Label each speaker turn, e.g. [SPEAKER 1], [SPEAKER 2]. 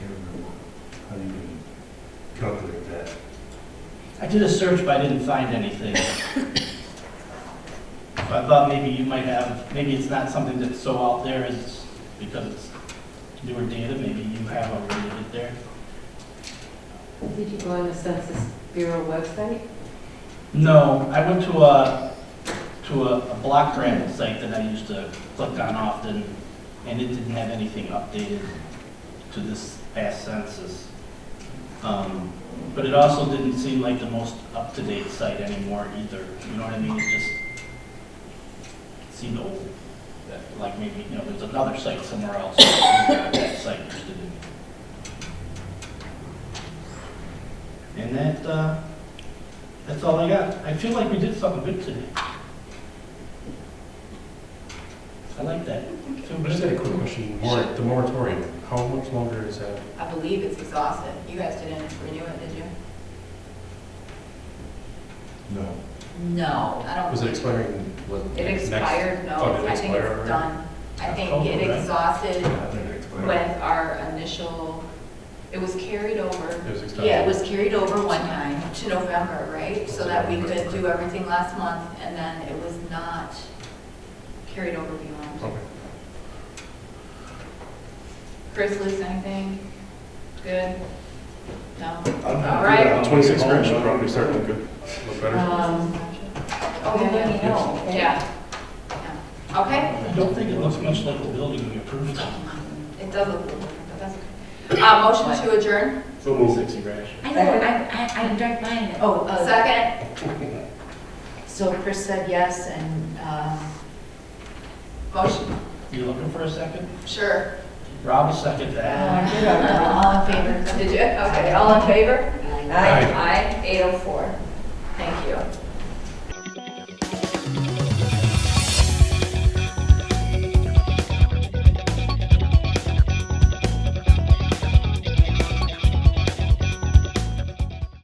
[SPEAKER 1] I did a search, but I didn't find anything. So I thought maybe you might have, maybe it's not something that's so out there as, because it's newer data, maybe you have already it there.
[SPEAKER 2] Did you go on the Census Bureau website?
[SPEAKER 1] No, I went to a, to a a block grant site that I used to click on often, and it didn't have anything updated to this past census. Um, But it also didn't seem like the most up-to-date site anymore either, you know what I mean? It just seemed old, that, like maybe, you know, there's another site somewhere else, that site just didn't. And that, uh, that's all I got. I feel like we did something good today. I like that. Feel
[SPEAKER 3] I just had a
[SPEAKER 1] good.
[SPEAKER 3] quick question. Mor- The moratorium, how much longer is that?
[SPEAKER 4] I believe it's exhausted. You guys didn't renew it, did you?
[SPEAKER 3] No.
[SPEAKER 4] No. I don't.
[SPEAKER 3] Was it expiring? what,
[SPEAKER 4] It
[SPEAKER 3] next-
[SPEAKER 4] expired, no,
[SPEAKER 3] Oh, did it
[SPEAKER 4] I think
[SPEAKER 3] expire
[SPEAKER 4] it's
[SPEAKER 3] already?
[SPEAKER 4] done. I think
[SPEAKER 1] October,
[SPEAKER 4] it
[SPEAKER 1] right?
[SPEAKER 4] exhausted
[SPEAKER 3] Yeah, I think it expired.
[SPEAKER 4] with our initial, it was carried over.
[SPEAKER 3] It was expired.
[SPEAKER 4] Yeah, it was carried over one time to November, right? So that we could do everything last month, and then it was not carried over beyond.
[SPEAKER 3] Okay.
[SPEAKER 4] Chris, lose anything? Good? No? All
[SPEAKER 3] Yeah,
[SPEAKER 4] right.
[SPEAKER 3] Twenty-six grand should probably start to look good, look better.
[SPEAKER 2] Um,
[SPEAKER 4] Oh, yeah,
[SPEAKER 2] Let
[SPEAKER 4] yeah.
[SPEAKER 2] me know, okay?
[SPEAKER 4] Yeah. Yeah. Okay,
[SPEAKER 1] I don't think it looks much like the building we approved of.
[SPEAKER 4] it does look a little different, but that's okay. Uh, motion to adjourn?
[SPEAKER 1] So moved. Sixty grand.
[SPEAKER 2] I know, I, I, I drank mine. Oh, uh,
[SPEAKER 4] Second?
[SPEAKER 2] so Chris said yes, and, uh,
[SPEAKER 4] Motion,
[SPEAKER 1] You looking for a second?
[SPEAKER 4] sure.
[SPEAKER 1] Rob will second that.
[SPEAKER 2] Uh, all in favor?
[SPEAKER 4] Did you, okay, all in favor?
[SPEAKER 2] Aye.
[SPEAKER 3] Aye.
[SPEAKER 4] Aye, eight oh four.